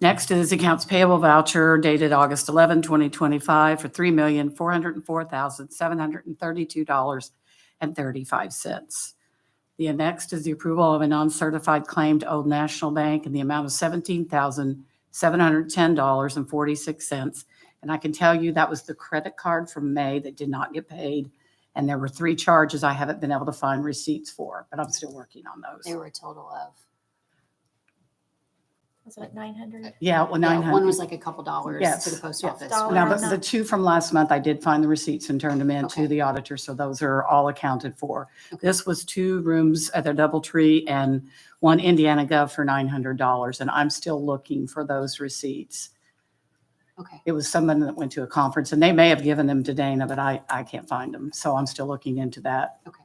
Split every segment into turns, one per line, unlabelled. Next is accounts payable voucher dated August 11, 2025 for $3,404,732.35. The next is the approval of a non-certified claim to Old National Bank in the amount of $17,710.46. And I can tell you that was the credit card from May that did not get paid. And there were three charges I haven't been able to find receipts for, but I'm still working on
There
those.
were a total of,
Was it nine hundred?
Yeah, well,
yeah,
900.
one was like a couple dollars to the
Yes,
post
yes.
office.
Dollar
Now,
one
the,
was-
amount.
the two from last month, I did find the receipts and turned them in
Okay.
to the auditor, so those are all accounted for.
Okay.
This was two rooms at the DoubleTree and one Indiana Gov for nine hundred dollars, and I'm still looking for those receipts.
Okay,
It was someone that went to a conference, and they may have given them to Dana, but I, I can't find them, so I'm still looking into that.
Okay.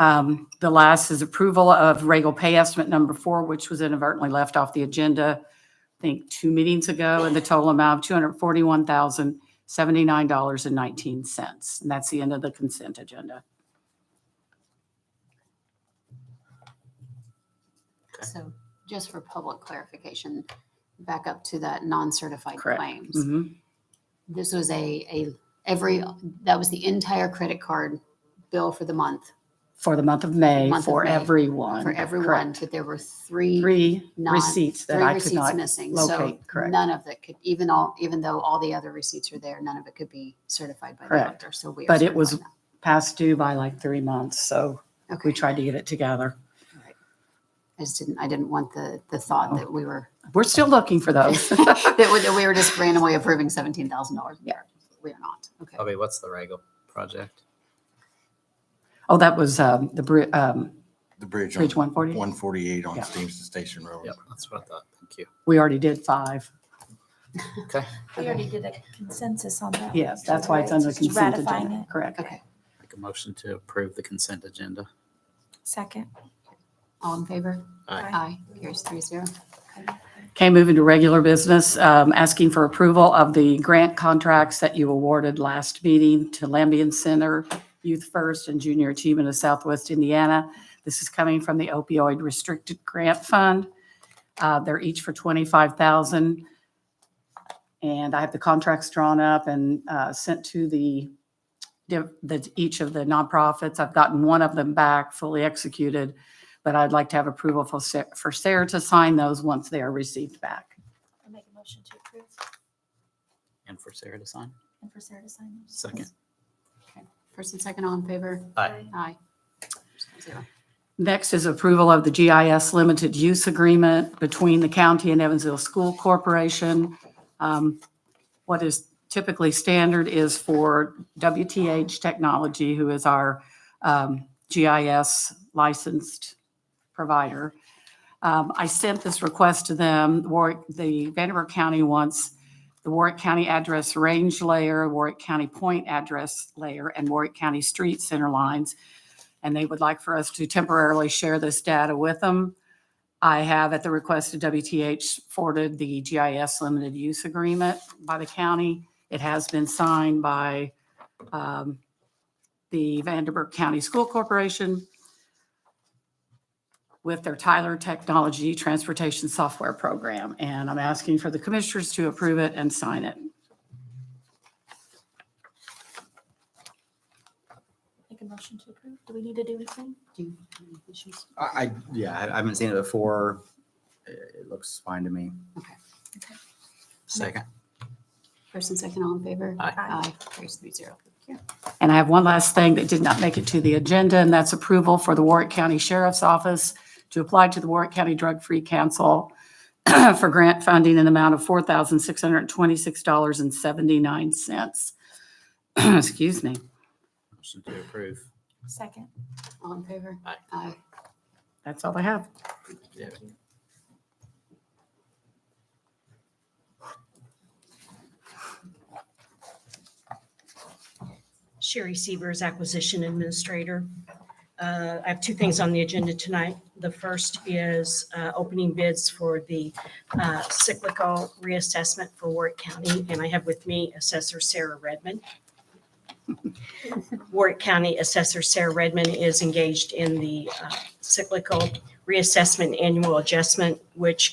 Um, the last is approval of Regal pay estimate number four, which was inadvertently left off the agenda, I think, two meetings ago, and the total amount of two hundred forty-one thousand, seventy-nine dollars and nineteen cents. And that's the end of the consent agenda.
so just for public clarification, back up to that non-certified
Correct.
claims.
Mhm.
This was a, a, every, that was the entire credit card bill for the month
For the month of May,
Month of
for
May,
everyone.
for everyone,
correct.
but there were three.
Three
non-
receipts that
three
I could
receipts
not
missing. So
locate, correct.
none of it could, even all, even though all the other receipts are there, none of it could be certified by the
Correct.
doctor. So we. are
But it was-
certifying
pass due by like three months, so
that.
we
Okay.
tried to get it together.
I just didn't, I didn't want the, the
Oh.
thought that we were,
We're still looking for those.
that we- that we were just randomly approving seventeen thousand dollars.
Yeah.
We are not. Okay.
Bobby, what's the Regal project?
Oh, that was um, the bri- um,
The bridge.
Bridge 140?
One forty-eight on
Yeah.
Steamson Station Road.
Yep, that's what I thought. Thank you.
We already did five.
Okay,
We already did a consensus on that.
Yes, that's why it's under
Just
consent
ratifying
agenda.
it.
Correct.
Okay.
make a motion to approve the consent agenda.
Second.
All in favor?
Aye.
Aye. Here's three zero.
Okay, moving to regular business, um, asking for approval of the grant contracts that you awarded last meeting to Lambian Center, Youth First, and Junior Achievement of Southwest Indiana. This is coming from the opioid restricted grant fund. Uh, They're each for 25,000. And I have the contracts drawn up and uh, sent to the, the, each of the nonprofits. I've gotten one of them back fully executed but I'd like to have approval for Sa- for Sarah to sign those once they are received back.
I make a motion to approve
And for Sarah to sign?
and for Sarah to sign. those.
Second.
First and second, all in favor?
Aye.
Aye. Here's three zero.
Next is approval of the GIS Limited Use Agreement between the county and Evansville School Corporation. Um, What is typically standard is for WTH Technology, who is our um, GIS licensed provider. Um, I sent this request to them. Warwick, the Vanderbilt County wants the Warwick County address range layer, Warwick County point address layer, and Warwick County street center lines and they would like for us to temporarily share this data with them. I have, at the request of WTH, forwarded the GIS limited use agreement by the county. It has been signed by um, the Vanderburgh County School Corporation with their Tyler Technology Transportation Software Program, and I'm asking for the commissioners to approve it and sign it.
Make a motion to approve. Do we need to do anything?
Do you have any issues?
I, I- yeah, I I haven't seen it before. It it looks fine to me.
Okay.
Okay.
Second.
First and second, all in favor?
Aye.
Aye. Here's three zero. Thank you.
And I have one last thing that did not make it to the agenda, and that's approval for the Warwick County Sheriff's Office to apply to the Warwick County Drug Free Council for grant funding in the amount of $4,626.79. Excuse me.
Motion to approve.
Second.
All in favor?
Aye.
Aye.
That's all I have.
Yeah.
Sherry Severs, Acquisition Administrator. Uh, I have two things on the agenda tonight. The first is uh, opening bids for the uh, cyclical reassessment for Warwick County, and I have with me Assessor Sarah Redmond. Warwick County Assessor Sarah Redmond is engaged in the uh, cyclical reassessment annual adjustment, which